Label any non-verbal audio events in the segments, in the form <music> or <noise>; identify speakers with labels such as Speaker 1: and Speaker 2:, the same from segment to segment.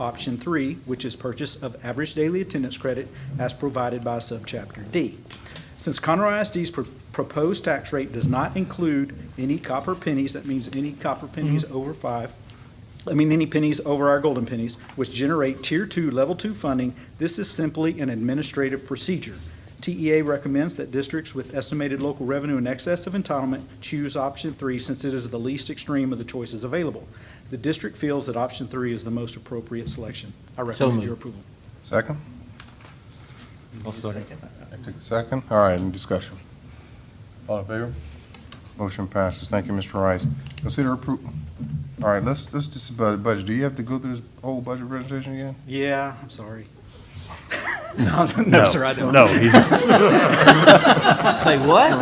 Speaker 1: Option three, which is purchase of average daily attendance credit as provided by subchapter D. Since Conroe ISD's pro- proposed tax rate does not include any copper pennies, that means any copper pennies over five, I mean, any pennies over our golden pennies, which generate Tier 2, Level 2 funding, this is simply an administrative procedure. TEA recommends that districts with estimated local revenue in excess of entitlement choose option three since it is the least extreme of the choices available. The district feels that option three is the most appropriate selection. I recommend
Speaker 2: moved.
Speaker 1: your approval.
Speaker 3: Second?
Speaker 4: I'll second.
Speaker 3: Take a second. All right, any discussion? All in favor? Motion passes. Thank you, Mr. Rice. Consider approval. All right, let's, let's just about the budget. Do you have to go through this whole budget presentation again?
Speaker 1: Yeah, I'm sorry. <laughs> No, no, sir, I don't.
Speaker 4: No, he's,
Speaker 2: Say what?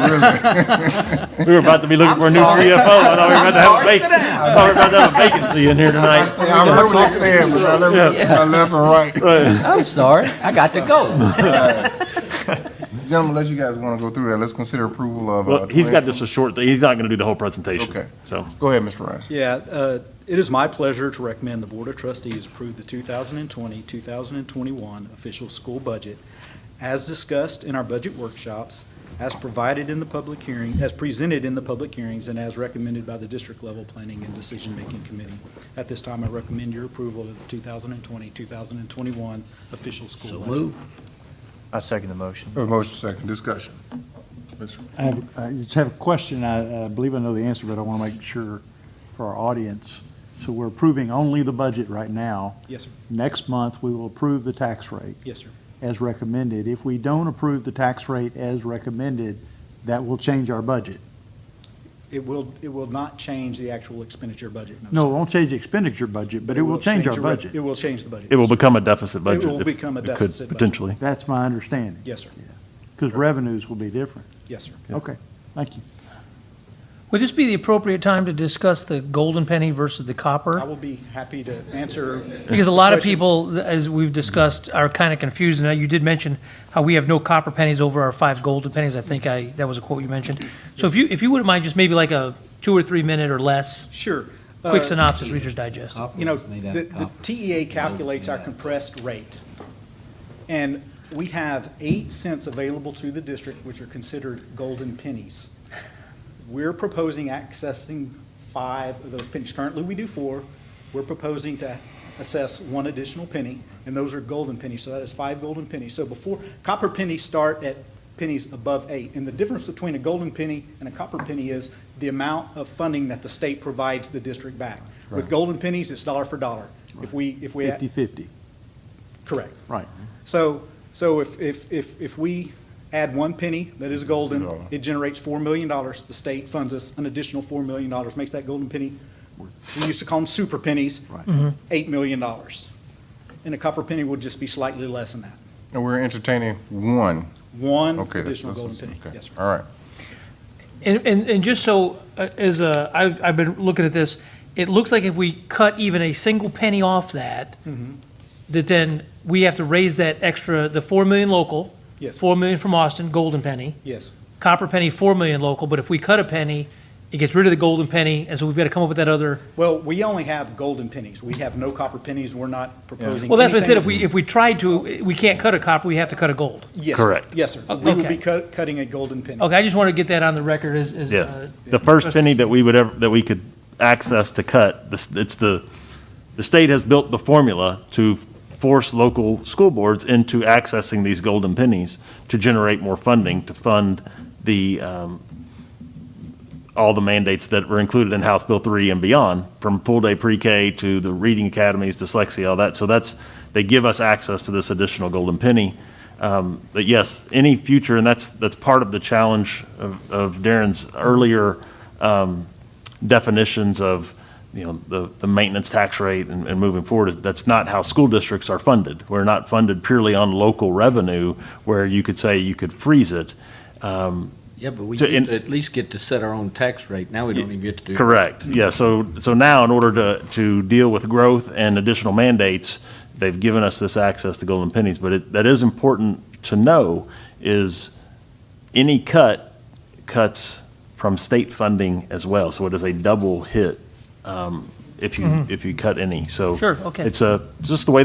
Speaker 4: we were about to be looking for a new
Speaker 2: sorry.
Speaker 4: CFO. I thought we were about to
Speaker 2: sorry, sit
Speaker 4: have a vacancy. I thought we were about to have a vacancy in
Speaker 3: <laughs>
Speaker 4: here tonight.
Speaker 3: I heard what they said, but I left, I left and right.
Speaker 2: I'm sorry, I got to go.
Speaker 3: Gentlemen, unless you guys want to go through that, let's consider approval of. uh,
Speaker 4: Well, he's got
Speaker 3: 20
Speaker 4: just a short thing. He's not going to do the whole presentation.
Speaker 3: Okay.
Speaker 4: So,
Speaker 3: Go ahead, Mr. Rice.
Speaker 1: Yeah, uh, it is my pleasure to recommend the Board of Trustees approve the 2020, 2021 official school budget as discussed in our budget workshops, as provided in the public hearing, as presented in the public hearings, and as recommended by the district level planning and decision-making committee. At this time, I recommend your approval of the 2020, 2021 official school budget.
Speaker 5: I second the motion.
Speaker 3: We have a motion second. Discussion. Mr.
Speaker 6: I have, I just have a question. I, I believe I know the answer, but I want to make sure for our audience. So we're approving only the budget right now.
Speaker 1: Yes, sir.
Speaker 6: Next month, we will approve the tax rate
Speaker 1: Yes, sir.
Speaker 6: as recommended. If we don't approve the tax rate as recommended, that will change our budget.
Speaker 1: It will, it will not change the actual expenditure budget.
Speaker 6: No, it
Speaker 1: sir.
Speaker 6: won't change the expenditure budget, but it will change our
Speaker 1: the rev- It
Speaker 6: budget.
Speaker 1: will change the budget.
Speaker 4: it will become a deficit budget.
Speaker 1: will
Speaker 4: if
Speaker 1: become a
Speaker 4: it could,
Speaker 1: deficit budget.
Speaker 4: Potentially.
Speaker 6: That's my understanding.
Speaker 1: Yes, sir.
Speaker 6: Because revenues will be different.
Speaker 1: Yes, sir.
Speaker 6: Okay, thank you.
Speaker 7: Would this be the appropriate time to discuss the golden penny versus the
Speaker 1: I
Speaker 7: copper?
Speaker 1: will be happy to answer.
Speaker 7: Because a lot of
Speaker 1: questions.
Speaker 7: people, as we've discussed, are kind of confused. Now, you did mention how we have no copper pennies over our five golden pennies. I think I, that was a quote you mentioned. So if you, if you wouldn't mind, just maybe like a two or three minute or less,
Speaker 1: Sure.
Speaker 7: quick
Speaker 1: Uh,
Speaker 7: synopsis, Reader's Digest.
Speaker 1: You know, the, the TEA calculates our compressed rate. And we have eight cents available to the district, which are considered golden pennies. We're proposing accessing five of those pennies. Currently, we do four. We're proposing to assess one additional penny, and those are golden pennies. So that is five golden pennies. So before, copper pennies start at pennies above eight. And the difference between a golden penny and a copper penny is the amount of funding that the state provides the district back. With
Speaker 6: Right.
Speaker 1: golden pennies, it's dollar for dollar. If we, if we.
Speaker 6: Fifty-fifty,
Speaker 1: Correct.
Speaker 6: right.
Speaker 1: So, so if, if, if, if we add one penny that is golden, it generates four million dollars. The state funds us an additional four million dollars, makes that golden penny, we used to call them super pennies,
Speaker 6: Right.
Speaker 7: Mm-hmm.
Speaker 1: eight million dollars. And a copper penny would just be slightly less than that.
Speaker 3: And we're entertaining one.
Speaker 1: One
Speaker 3: Okay. that's-
Speaker 1: additional golden
Speaker 3: that's-
Speaker 1: penny.
Speaker 3: okay.
Speaker 1: Yes, sir.
Speaker 3: All right.
Speaker 7: And, and, and just so, uh, as a, I've, I've been looking at this, it looks like if we cut even a single penny off that, that then we have to raise that extra, the four million local.
Speaker 1: Yes.
Speaker 7: Four million from Austin, golden penny.
Speaker 1: Yes,
Speaker 7: Copper penny, four million local, but if we cut a penny, it gets rid of the golden penny, and so we've got to come up with that other.
Speaker 1: well, we only have golden pennies. We have no copper pennies. We're not proposing.
Speaker 7: Well, that's what I said,
Speaker 1: anything-
Speaker 7: if we, if we tried to, we can't cut a copper, we have to cut a gold.
Speaker 1: Yes.
Speaker 4: Correct.
Speaker 1: Yes, sir. We will
Speaker 7: Okay.
Speaker 1: be cut, cutting a golden penny.
Speaker 7: Okay, I just want to get that on the record as, as.
Speaker 4: Yeah.
Speaker 7: uh,
Speaker 4: The first penny that we would ever, that we could access to cut, this- it's the, the state has built the formula to force local school boards into accessing these golden pennies to generate more funding, to fund the, um, all the mandates that were included in House Bill 3 and beyond, from full-day pre-K to the reading academies, dyslexia, all that. So that's, they give us access to this additional golden penny. Um, But yes, any future, and that's, that's part of the challenge of of Darren's earlier um, definitions of, you know, the, the maintenance tax rate and, and moving forward, is that's not how school districts are funded. We're not funded purely on local revenue, where you could say you could freeze it. Um,
Speaker 8: Yeah, but we
Speaker 4: So in-
Speaker 8: used to at least get to set our own tax rate. Now we don't even get to do that.
Speaker 4: Correct, yeah, so, so now in order to, to deal with growth and additional mandates, they've given us this access to golden pennies, but it, that is important to know is any cut cuts from state funding as well, so it is a double hit, um, i- if you, if you cut any, so.
Speaker 7: Sure, okay.
Speaker 4: It's a, just the way